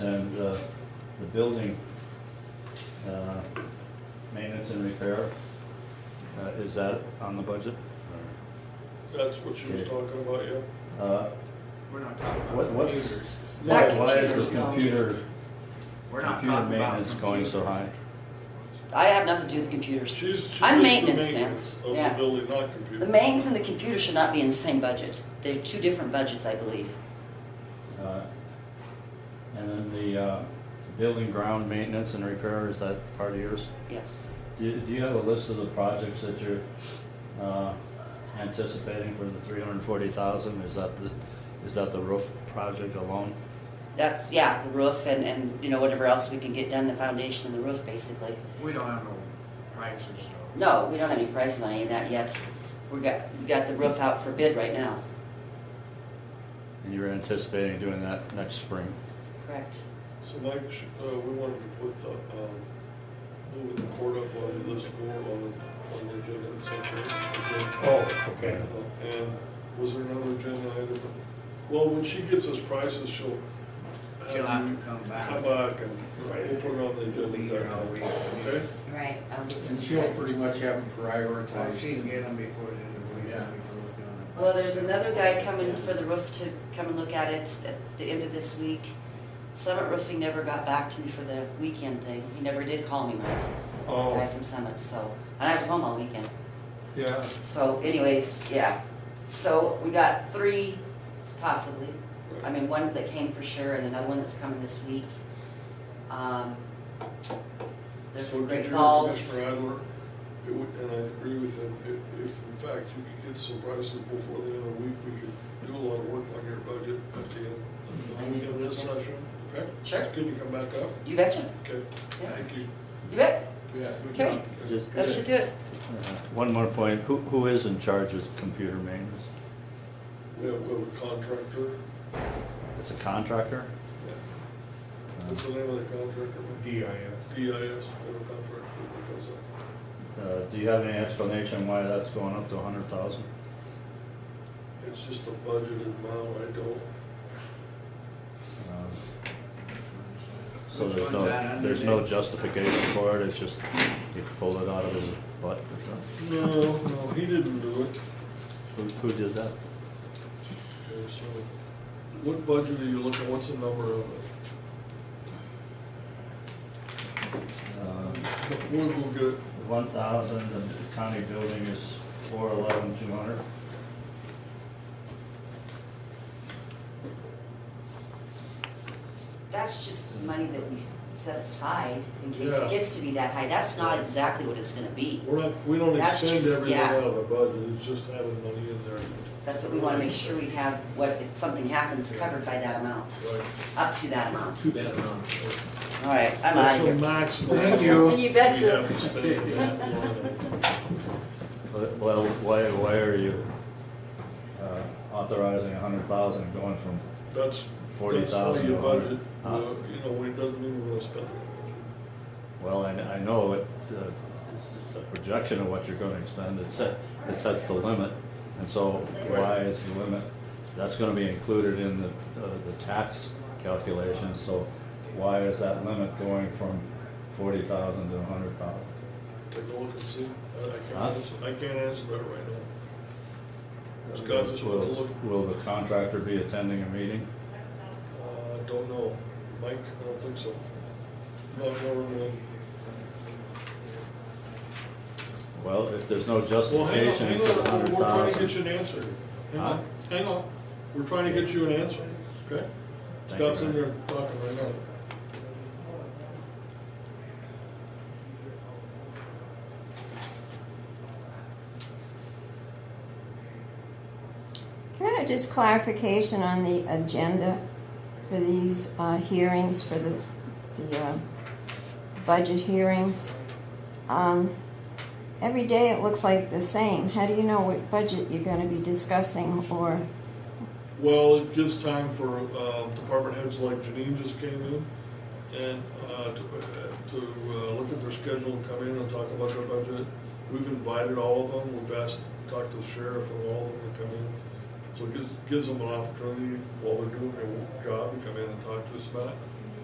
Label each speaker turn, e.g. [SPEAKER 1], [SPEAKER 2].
[SPEAKER 1] uh, building, uh, maintenance and repair, uh, is that on the budget?
[SPEAKER 2] That's what she was
[SPEAKER 1] Yeah.
[SPEAKER 2] talking about, yeah.
[SPEAKER 1] Uh,
[SPEAKER 3] We're not talking
[SPEAKER 1] What-
[SPEAKER 3] about
[SPEAKER 1] what's-
[SPEAKER 3] computers.
[SPEAKER 1] Why,
[SPEAKER 4] Not
[SPEAKER 1] why is
[SPEAKER 4] computers,
[SPEAKER 1] the
[SPEAKER 4] no,
[SPEAKER 1] computer,
[SPEAKER 4] just-
[SPEAKER 3] We're not
[SPEAKER 1] computer
[SPEAKER 3] talking about
[SPEAKER 1] maintenance going so high?
[SPEAKER 3] computers.
[SPEAKER 4] I have nothing to do with computers.
[SPEAKER 2] She's, she
[SPEAKER 4] I'm
[SPEAKER 2] was the
[SPEAKER 4] maintenance now.
[SPEAKER 2] maintenance of the
[SPEAKER 4] Yeah.
[SPEAKER 2] building, not computer.
[SPEAKER 4] The mains and the computer should not be in the same budget. They're two different budgets, I believe.
[SPEAKER 1] uh, and then the, uh, building ground maintenance and repair, is that part of yours?
[SPEAKER 4] Yes.
[SPEAKER 1] Do, you- do you have a list of the projects that you're, uh, anticipating for the three hundred and forty thousand? Is that the, is that the roof project alone?
[SPEAKER 4] That's, yeah, the roof and, and, you know, whatever else we can get done, the foundation and the roof, basically.
[SPEAKER 3] We don't have no prices, so.
[SPEAKER 4] No, we don't have any prices on any of that yet. We got, we got the roof out for bid right now.
[SPEAKER 1] And you're anticipating doing that next spring?
[SPEAKER 4] Correct.
[SPEAKER 2] So Mike, sh- uh, we wanted to put the, um, moving the court up on this floor on, on the agenda at some point.
[SPEAKER 1] Oh,
[SPEAKER 2] Uh, And was there another agenda item? Well, when she gets us prices, she'll. have
[SPEAKER 3] She'll have
[SPEAKER 2] you
[SPEAKER 3] to come back.
[SPEAKER 2] Come back and
[SPEAKER 5] Right.
[SPEAKER 2] we'll put it on the
[SPEAKER 3] We'll
[SPEAKER 2] agenda.
[SPEAKER 3] be here all week.
[SPEAKER 2] Okay?
[SPEAKER 4] Right, I'll get
[SPEAKER 5] And she'll pretty much have them prioritized.
[SPEAKER 3] Well, if she can get them before the end of the week.
[SPEAKER 5] Yeah.
[SPEAKER 3] we can look down at it.
[SPEAKER 4] Well, there's another guy coming for the roof to come and look at it at the end of this week. Summit Roofing never got back to me for the weekend thing. He never did call me, Mike. The guy
[SPEAKER 1] Oh,
[SPEAKER 4] from Summit, so, and I was home all weekend.
[SPEAKER 1] yeah.
[SPEAKER 4] So anyways, yeah. So we got three possibly. I mean, one that came for sure and another one that's coming this week. Um, There's
[SPEAKER 2] So did
[SPEAKER 4] Great
[SPEAKER 2] you,
[SPEAKER 4] Falls.
[SPEAKER 2] Mr. Adler, it would, and I agree with him, if, if in fact you could get some prices before the end of the week, we could do a lot of work on your budget at the end, at
[SPEAKER 4] I
[SPEAKER 2] the end
[SPEAKER 4] need to
[SPEAKER 2] of this
[SPEAKER 4] look
[SPEAKER 2] session, okay?
[SPEAKER 4] Mm-hmm. Sure.
[SPEAKER 2] Can you come back up?
[SPEAKER 4] You betcha.
[SPEAKER 2] Okay,
[SPEAKER 4] Yeah.
[SPEAKER 2] thank you.
[SPEAKER 4] You bet.
[SPEAKER 5] Yeah, good
[SPEAKER 4] Okay.
[SPEAKER 5] job.
[SPEAKER 1] Just,
[SPEAKER 4] That should do it.
[SPEAKER 1] uh, one more point, who, who is in charge of computer maintenance?
[SPEAKER 2] We have, we have a contractor,
[SPEAKER 1] It's a contractor? Um,
[SPEAKER 2] what's the name of the contractor? DIS. DIS, we have a contractor that does that.
[SPEAKER 1] Uh, do you have any explanation why that's going up to a hundred thousand?
[SPEAKER 2] It's just a budgeted amount, I don't,
[SPEAKER 1] um, So
[SPEAKER 3] Which
[SPEAKER 1] there's
[SPEAKER 3] one's that
[SPEAKER 1] no,
[SPEAKER 3] under
[SPEAKER 1] there's no
[SPEAKER 3] there?
[SPEAKER 1] justification for it, it's just he pulled it out of his butt or something?
[SPEAKER 2] no, no, he didn't do it.
[SPEAKER 1] Who, who did that?
[SPEAKER 2] Okay, so, what budget are you looking, what's the number of it?
[SPEAKER 1] Uh,
[SPEAKER 2] We'll, we'll get it.
[SPEAKER 1] One thousand, the county building is four eleven, two hundred.
[SPEAKER 4] That's just money that we set aside in case
[SPEAKER 2] Yeah.
[SPEAKER 4] it gets to be that high. That's not exactly what it's gonna be.
[SPEAKER 2] We're not, we don't
[SPEAKER 4] That's
[SPEAKER 2] extend
[SPEAKER 4] just-
[SPEAKER 2] everything
[SPEAKER 4] yeah.
[SPEAKER 2] out of our budget, it's just having money in there.
[SPEAKER 4] That's what we wanna make sure we have, what, if something happens, covered by that amount,
[SPEAKER 2] Right.
[SPEAKER 4] up to that amount.
[SPEAKER 2] Too bad amount.
[SPEAKER 4] All right, I'm out
[SPEAKER 2] That's
[SPEAKER 4] of
[SPEAKER 2] the
[SPEAKER 4] here.
[SPEAKER 2] maximum.
[SPEAKER 5] Thank you.
[SPEAKER 4] You
[SPEAKER 2] We
[SPEAKER 4] betcha.
[SPEAKER 2] have to spend in that line.
[SPEAKER 1] But, Well, why, why are you uh, authorizing a hundred thousand going from,
[SPEAKER 2] That's, that's how
[SPEAKER 1] 40,000
[SPEAKER 2] you budget,
[SPEAKER 1] huh?
[SPEAKER 2] uh, you know, it doesn't mean we're gonna spend that
[SPEAKER 1] well, I, I know it, uh, it's just a projection of what you're gonna expend, it set, it sets the limit. And so why is the limit, that's gonna be included in the, uh, the tax calculation, so why is that limit going from forty thousand to a hundred thousand?
[SPEAKER 2] much. Take a look and see, I- I can't
[SPEAKER 1] Huh?
[SPEAKER 2] answer, I can't answer that right now. Scott just went to look,
[SPEAKER 1] Will the contractor be attending a meeting?
[SPEAKER 2] uh, don't know, Mike, I don't think so. Not normally.
[SPEAKER 1] Well, if there's no
[SPEAKER 2] Well, hang on,
[SPEAKER 1] justification
[SPEAKER 2] hang
[SPEAKER 1] for the
[SPEAKER 2] on,
[SPEAKER 1] hundred
[SPEAKER 2] we're- we're trying to get
[SPEAKER 1] thousand.
[SPEAKER 2] you an answer. Hang on,
[SPEAKER 1] Huh?
[SPEAKER 2] hang on, we're trying to get you an answer, okay?
[SPEAKER 1] Thank you,
[SPEAKER 2] Scott's in
[SPEAKER 1] Brad.
[SPEAKER 2] there talking right now.
[SPEAKER 6] Can I have just clarification on the agenda for these uh, hearings, for this, the uh, budget hearings? Um, Every day it looks like the same. How do you know what budget you're gonna be discussing or,
[SPEAKER 2] Well, it gives time for, uh, department heads like Janine just came in and, uh, to, uh, to, uh, look at their schedule and come in and talk about their budget. We've invited all of them, we've asked, talked to the sheriff and all of them to come in. So it gives, gives them an opportunity while they're doing their job to come in and talk to us about it.